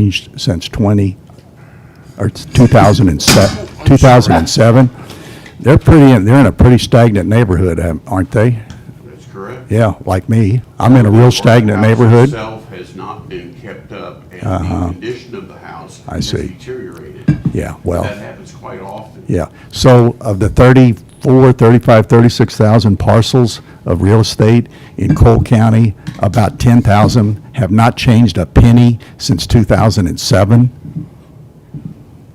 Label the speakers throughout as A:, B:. A: changed since 20, or 2007, 2007. They're pretty, in- they're in a pretty stagnant neighborhood, um, aren't they?
B: That's correct.
A: Yeah, like me. I'm in a real stagnant neighborhood. Uh-huh.
B: The house itself has not been kept up, and the condition of the house
A: I
B: has
A: see.
B: deteriorated.
A: Yeah, well.
B: That happens quite often.
A: Yeah, so of the 34, 35, 36,000 parcels of real estate in Cole County, about 10,000 have not changed a penny since 2007.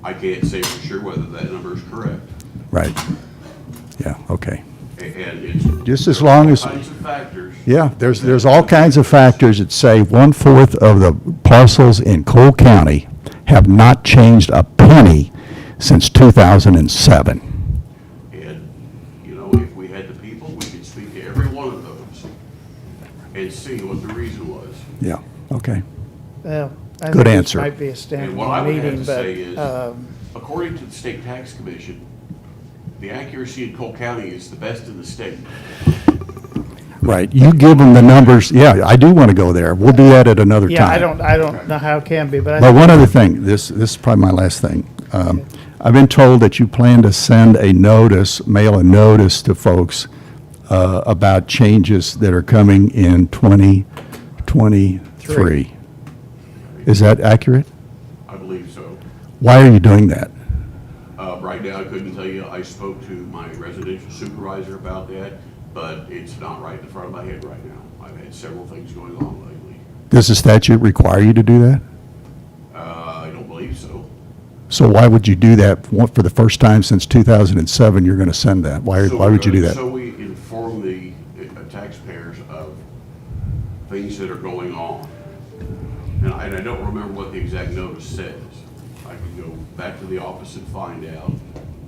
B: I can't say for sure whether that number is correct,
A: Right. Yeah, okay.
B: a- and it's.
A: Just as
B: there are
A: long
B: all
A: as-
B: Kinds of factors.
A: Yeah, there's, there's all kinds of factors that say one-fourth of the parcels in Cole County have not changed a penny since 2007.
B: And, you know, if we had the people, we could speak to every one of those and see what the reason was.
A: Yeah, okay.
C: Well, I
A: Good
C: think this
A: answer.
C: Might be a
B: And what I would
C: standalone
B: have
C: meeting,
B: to say is-
C: but, um,
B: According to the State Tax Commission, the accuracy in Cole County is the best in the state.
A: Right, you give them the numbers, yeah, I do want to go there. We'll do that at another time.
C: yeah, I don't, I don't know how it can be, but I
A: Well,
C: think
A: one other thing, this, this is probably my last thing. Um, I've been told that you plan to send a notice, mail a notice to folks uh, about changes that are coming in 2023. Is that accurate?
B: I believe so.
A: Why are you doing that?
B: Uh, right now, I couldn't tell you, I spoke to my residential supervisor about that, but it's not right in the front of my head right now. I've had several things going on lately.
A: Does the statute require you to do that?
B: Uh, I don't believe so.
A: So why would you do that? For for the first time since 2007, you're going to send that? Why,
B: So
A: why
B: we're
A: would you do
B: gonna-
A: that?
B: So we inform the uh, taxpayers of things that are going on. And I, and I don't remember what the exact notice says. I can go back to the office and find out.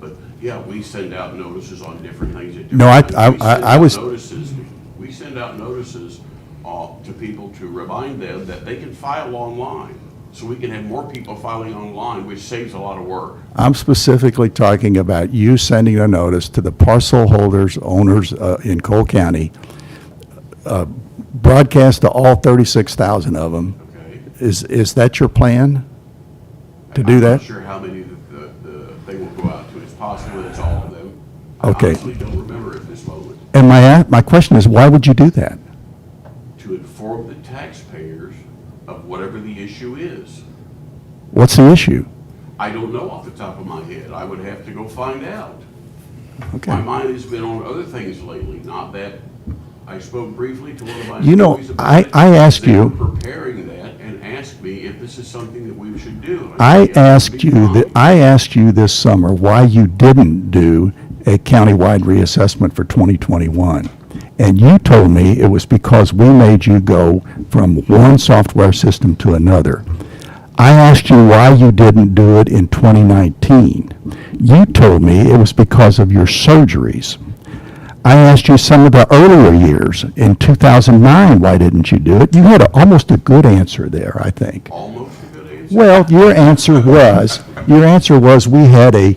B: But, yeah, we send out notices on different things at different
A: No, I-
B: times.
A: I-
B: We send
A: I- I
B: out
A: was-
B: Notices, we send out notices, uh, to people to remind them that they can file online. So we can have more people filing online, which saves a lot of work.
A: I'm specifically talking about you sending a notice to the parcel holders, owners uh, in Cole County, uh, broadcast to all 36,000 of them.
B: Okay.
A: Is, is that your plan? To do
B: I'm not
A: that?
B: sure how many that the, the, they will go out to. It's possible it's all of them. I
A: Okay.
B: honestly don't remember at this moment.
A: And my, a- my question is, why would you do that?
B: To inform the taxpayers of whatever the issue is.
A: What's the issue?
B: I don't know off the top of my head. I would have to go find out. My
A: Okay.
B: mind has been on other things lately, not that, I spoke briefly to one of my
A: You know,
B: employees about
A: I-
B: it.
A: I asked
B: They were
A: you-
B: preparing that and asked me if this is something that we should do. And
A: I
B: said, "Yes, it would
A: asked
B: be
A: you,
B: fine."
A: that I asked you this summer why you didn't do a countywide reassessment for 2021. And you told me it was because we made you go from one software system to another. I asked you why you didn't do it in 2019. You told me it was because of your surgeries. I asked you some of the earlier years, in 2009, why didn't you do it? You had a- almost a good answer there, I think.
B: Almost a good answer.
A: Well, your answer was, your answer was, we had a,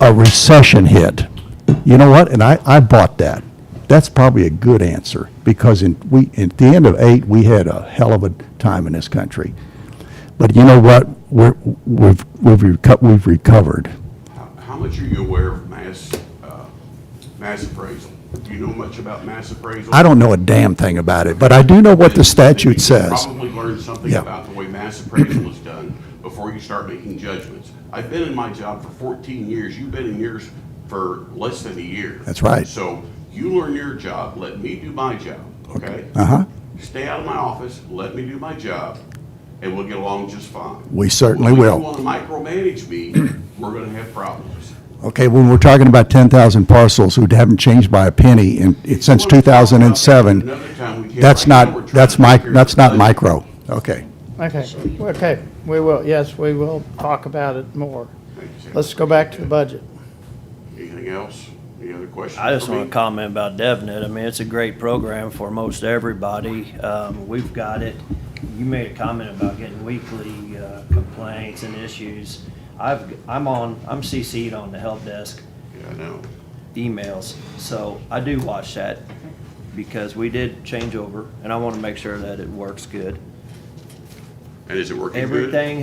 A: a recession hit. You know what? And I, I bought that. That's probably a good answer, because in, we, at the end of eight, we had a hell of a time in this country. But you know what? We're, we've, we've reco- we've recovered.
B: How- How much are you aware of mass, uh, mass appraisal? Do you know much about mass appraisal?
A: I don't know a damn thing about it, but I do know what the
B: You
A: statute
B: can
A: says.
B: Probably learn something
A: Yeah.
B: about the way mass appraisal is done before you start making judgments. I've been in my job for 14 years, you've been in yours for less than a year.
A: That's right.
B: So you learn your job, let me do my job, okay?
A: Uh-huh.
B: Stay out of my office, let me do my job, and we'll get along just fine.
A: We certainly will.
B: If you want to micromanage me, we're going to have problems.
A: Okay, when we're talking about 10,000 parcels who haven't changed by a penny in, since 2007,
B: Another time we can't
A: that's
B: right now, we're
A: not,
B: trying
A: that's
B: to
A: my,
B: take care of
A: that's not
B: the budget.
A: micro. Okay.
C: Okay, okay, we will, yes, we will talk about it more.
B: Thank you, Sam.
C: Let's go back to the budget.
B: Anything else? Any other questions?
D: I just
B: for
D: want
B: me?
D: to comment about DevNet. I mean, it's a great program for most everybody. Um, We've got it. You made a comment about getting weekly uh, complaints and issues. I've, I'm on, I'm CC'd on the help desk
B: Yeah, I know.
D: emails, so I do watch that because we did change over, and I want to make sure that it works good.
E: And is it working good?
B: Everything